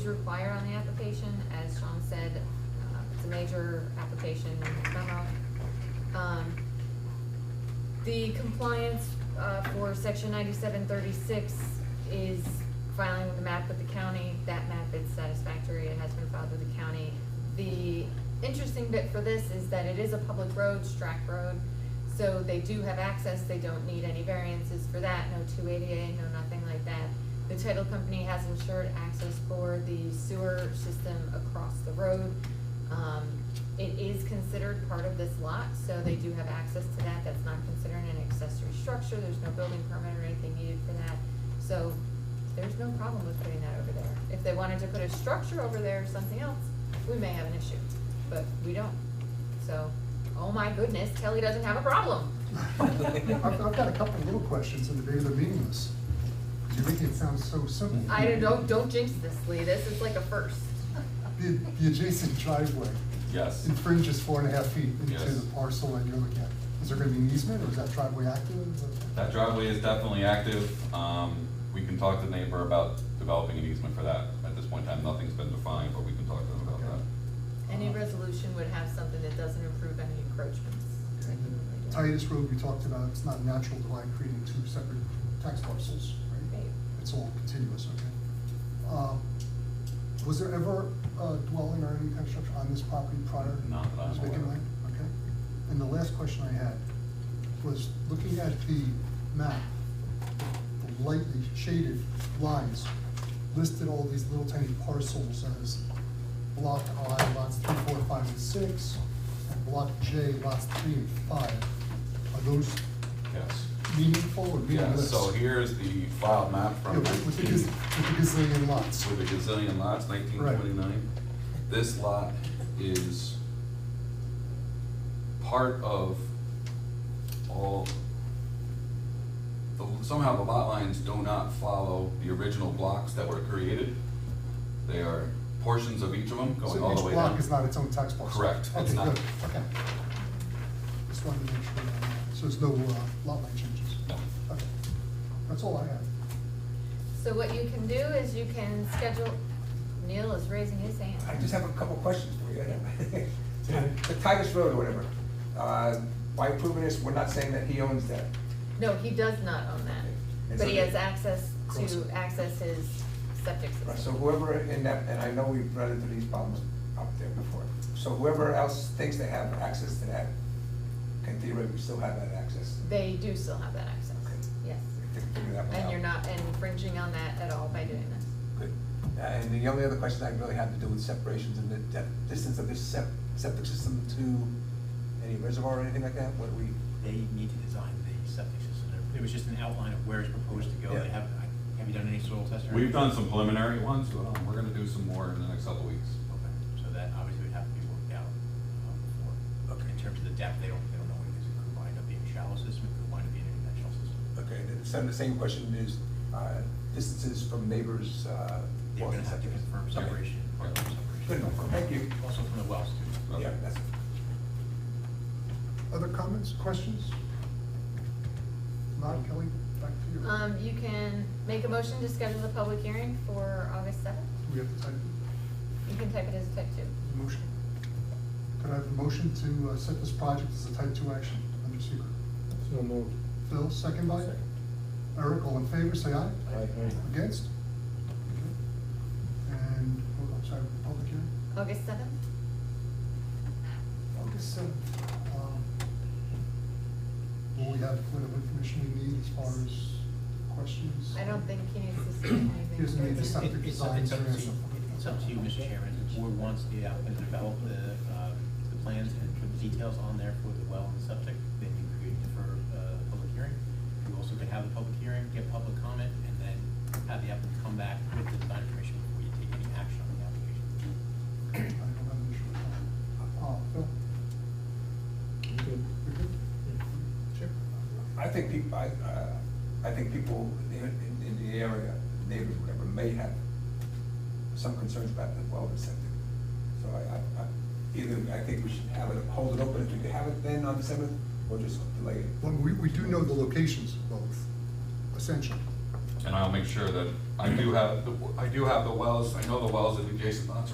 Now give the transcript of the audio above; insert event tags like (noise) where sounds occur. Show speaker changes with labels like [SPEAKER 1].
[SPEAKER 1] require on the application, as Sean said, uh, it's a major application, memo. Um, The compliance uh, for section ninety-seven thirty-six is filing with the map with the county. That map is satisfactory, it has been filed with the county. The interesting bit for this is that it is a public road, Strack Road, so they do have access, they don't need any variances for that, no two eighty-eight, no nothing like that. The title company has insured access for the sewer system across the road. Um, it is considered part of this lot, so they do have access to that, that's not considered an accessory structure, there's no building permit or anything needed for that. So, there's no problem with putting that over there. If they wanted to put a structure over there or something else, we may have an issue, but we don't. So, oh my goodness, Kelly doesn't have a problem.
[SPEAKER 2] I've, I've got a couple little questions and maybe they're meaningless. You're making it sound so simple.
[SPEAKER 1] I don't, don't, don't jinx this, Lee, this is like a first.
[SPEAKER 2] (laughs) The, the adjacent driveway
[SPEAKER 3] Yes,
[SPEAKER 2] infringes four and a half feet into
[SPEAKER 3] Yes.
[SPEAKER 2] the parcel that you're looking at. Is there gonna be an easement or is that driveway active?
[SPEAKER 3] that driveway is definitely active. Um, we can talk to the neighbor about developing an easement for that. At this point in time, nothing's been defined, but we can talk to them about
[SPEAKER 2] Okay.
[SPEAKER 3] that.
[SPEAKER 1] Any resolution would have something that doesn't improve any encroachments.
[SPEAKER 2] And the Titus Road, we talked about, it's not natural to like creating two separate tax parcels, right?
[SPEAKER 1] Right.
[SPEAKER 2] It's all continuous, okay? Um, Was there ever a dwelling or any kind of structure on this property prior?
[SPEAKER 3] Not that I'm
[SPEAKER 2] to this vacant
[SPEAKER 3] aware of.
[SPEAKER 2] land? Okay. And the last question I had was, looking at the map, the lightly shaded lines listed all these little tiny parcels as block I, lots three, four, five, and six, and block J, lots three and five. Are those
[SPEAKER 3] Yes.
[SPEAKER 2] meaningful or
[SPEAKER 3] Yeah,
[SPEAKER 2] meaningless?
[SPEAKER 3] so here's the filed map
[SPEAKER 2] Yeah,
[SPEAKER 3] from
[SPEAKER 2] With with the gaz-
[SPEAKER 3] 19
[SPEAKER 2] with the gazillion lots.
[SPEAKER 3] with the gazillion lots, nineteen twenty-nine. This lot is part of all, the- somehow the lot lines do not follow the original blocks that were created. They are portions of each of them going all the way
[SPEAKER 2] So each
[SPEAKER 3] down.
[SPEAKER 2] block is not its own tax parcel?
[SPEAKER 3] Correct, it's
[SPEAKER 2] Okay,
[SPEAKER 3] not.
[SPEAKER 2] good, okay. Just wanted to make sure, on that. so there's no uh, lot line changes?
[SPEAKER 3] No.
[SPEAKER 2] Okay, that's all I have.
[SPEAKER 1] So what you can do is you can schedule, Neil is raising his hand.
[SPEAKER 4] I just have a couple questions for you. The Titus Road or whatever, uh, by approving this, we're not saying that he owns that.
[SPEAKER 1] No, he does not own that,
[SPEAKER 4] And
[SPEAKER 1] but
[SPEAKER 4] so
[SPEAKER 1] he
[SPEAKER 4] they-
[SPEAKER 1] has access
[SPEAKER 4] Cross
[SPEAKER 1] to
[SPEAKER 4] it.
[SPEAKER 1] access his septic
[SPEAKER 4] Right, So
[SPEAKER 1] system.
[SPEAKER 4] whoever in that, and I know we've run into these problems up there before, so whoever else thinks they have access to that, can theoretically still have that access.
[SPEAKER 1] They do still have that access,
[SPEAKER 4] Okay.
[SPEAKER 1] yes.
[SPEAKER 4] If they can figure that one
[SPEAKER 1] And
[SPEAKER 4] out.
[SPEAKER 1] you're not infringing on that at all by doing this.
[SPEAKER 4] Good. Uh, And the only other question I really have to do with separations and the depth- distance of this sep- septic system to any reservoir or anything like that, what do we?
[SPEAKER 5] They need to design the septic system. There- It was just an outline of where it's proposed to go. They
[SPEAKER 4] Yeah.
[SPEAKER 5] haven't, I- have you done any soil tests or?
[SPEAKER 3] We've
[SPEAKER 5] anything?
[SPEAKER 3] done some preliminary ones, but um, we're gonna do some more in the next couple of weeks.
[SPEAKER 5] Okay, so that obviously would have to be worked out um, before.
[SPEAKER 4] Okay.
[SPEAKER 5] In terms of the depth, they don't, they don't know what it is. It could wind up being a shallow system, it could wind up being an interventional system.
[SPEAKER 4] Okay, the same, the same question is, uh, distances from neighbors, uh.
[SPEAKER 5] They're gonna have to confirm
[SPEAKER 4] Okay.
[SPEAKER 5] separation,
[SPEAKER 3] Yeah.
[SPEAKER 5] confirm separation.
[SPEAKER 4] Good enough. Thank you.
[SPEAKER 5] Also from the wells too.
[SPEAKER 4] Yeah, that's,
[SPEAKER 2] Other comments, questions? Not Kelly, back to you.
[SPEAKER 1] Um, you can make a motion to schedule the public hearing for August seventh.
[SPEAKER 2] Do we have to type
[SPEAKER 1] You can type it as a type two.
[SPEAKER 2] the motion? Could I have a motion to uh, set this project as a type two action under secret?
[SPEAKER 6] So moved.
[SPEAKER 2] Phil, second by? Eric, all in favor, say aye.
[SPEAKER 6] Aye.
[SPEAKER 2] Against? Okay. And, oh, I'm sorry, public hearing?
[SPEAKER 1] August seventh?
[SPEAKER 2] August seventh. Will Um, we have whatever information we need as far as questions?
[SPEAKER 1] I don't think he needs to see anything.
[SPEAKER 2] He doesn't need to
[SPEAKER 5] It's
[SPEAKER 2] stop.
[SPEAKER 5] up
[SPEAKER 2] Septic
[SPEAKER 5] it's up
[SPEAKER 2] designs
[SPEAKER 5] to
[SPEAKER 2] or
[SPEAKER 5] you,
[SPEAKER 2] something.
[SPEAKER 5] it's up to you, Mr. Chairman, If the board wants the applicant to develop the, um, the plans and put the details on there for the well and septic, then you could defer, uh, the public hearing. You also could have the public hearing, get public comment, and then have the applicant come back with the design information before you take any action on the application.
[SPEAKER 2] I don't have an issue with that. Uh, Phil? You're good? Sure.
[SPEAKER 4] I think people, I, uh, I think people in, in- in the area, neighbors, whatever, may have some concerns about the well and septic. So I, I, I- either, I think we should have it, hold it open, if we could have it then on the seventh, or just delay it.
[SPEAKER 2] Well, we, we do know the locations of both, essentially.
[SPEAKER 3] And I'll make sure that, I do have, the I do have the wells, I know the wells at adjacent lots are